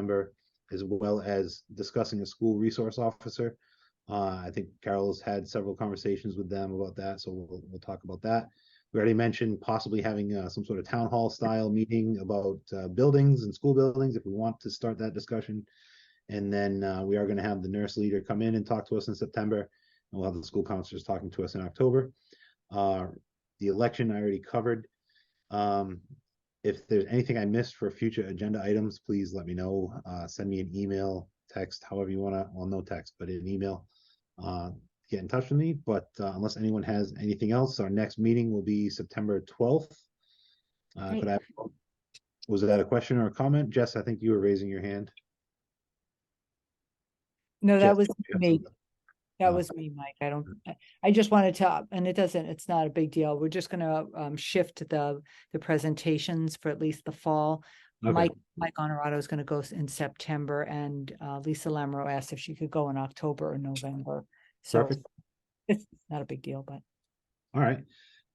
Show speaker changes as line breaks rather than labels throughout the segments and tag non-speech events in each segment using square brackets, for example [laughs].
member, as well as discussing a school resource officer. Uh, I think Carol's had several conversations with them about that, so we'll, we'll talk about that. We already mentioned possibly having uh, some sort of town hall style meeting about uh, buildings and school buildings if we want to start that discussion. And then uh, we are going to have the nurse leader come in and talk to us in September, and we'll have the school counselors talking to us in October. Uh, the election I already covered. Um, if there's anything I missed for future agenda items, please let me know. Uh, send me an email, text, however you wanna, well, no text, but an email. Uh, get in touch with me, but uh, unless anyone has anything else, our next meeting will be September twelfth. Uh, could I, was that a question or a comment? Jess, I think you were raising your hand.
No,
Jess,
that was
you have
me.
something?
That
Oh.
was me, Mike. I don't, I- I just wanted to, and it doesn't, it's not a big deal. We're just gonna um shift the the presentations for at least the fall.
Okay.
Mike, Mike Honorado is gonna go s- in September and uh Lisa Lamro asked if she could go in October or November. So
Perfect.
it's not a big deal, but
All right.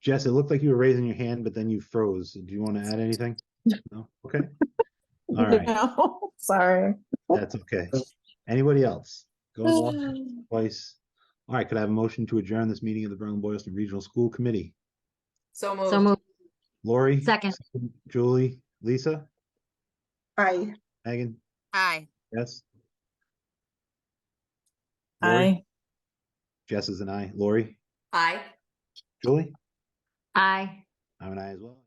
Jess, it looked like you were raising your hand, but then you froze. Do you want to add anything? No? Okay.
[laughs]
All right,
No, sorry.
that's okay. Anybody else? Go
Uh,
once,
Move
twice. All right, could I have a motion to adjourn this meeting of the Berlin Boylston Regional School Committee?
So
So
moved.
moved.
Lori?
Second.
Julie? Lisa?
Aye.
Megan?
Aye.
Yes? Lori?
Aye.
Jess is an aye. Lori?
Aye.
Julie?
Aye.
I'm an aye as well.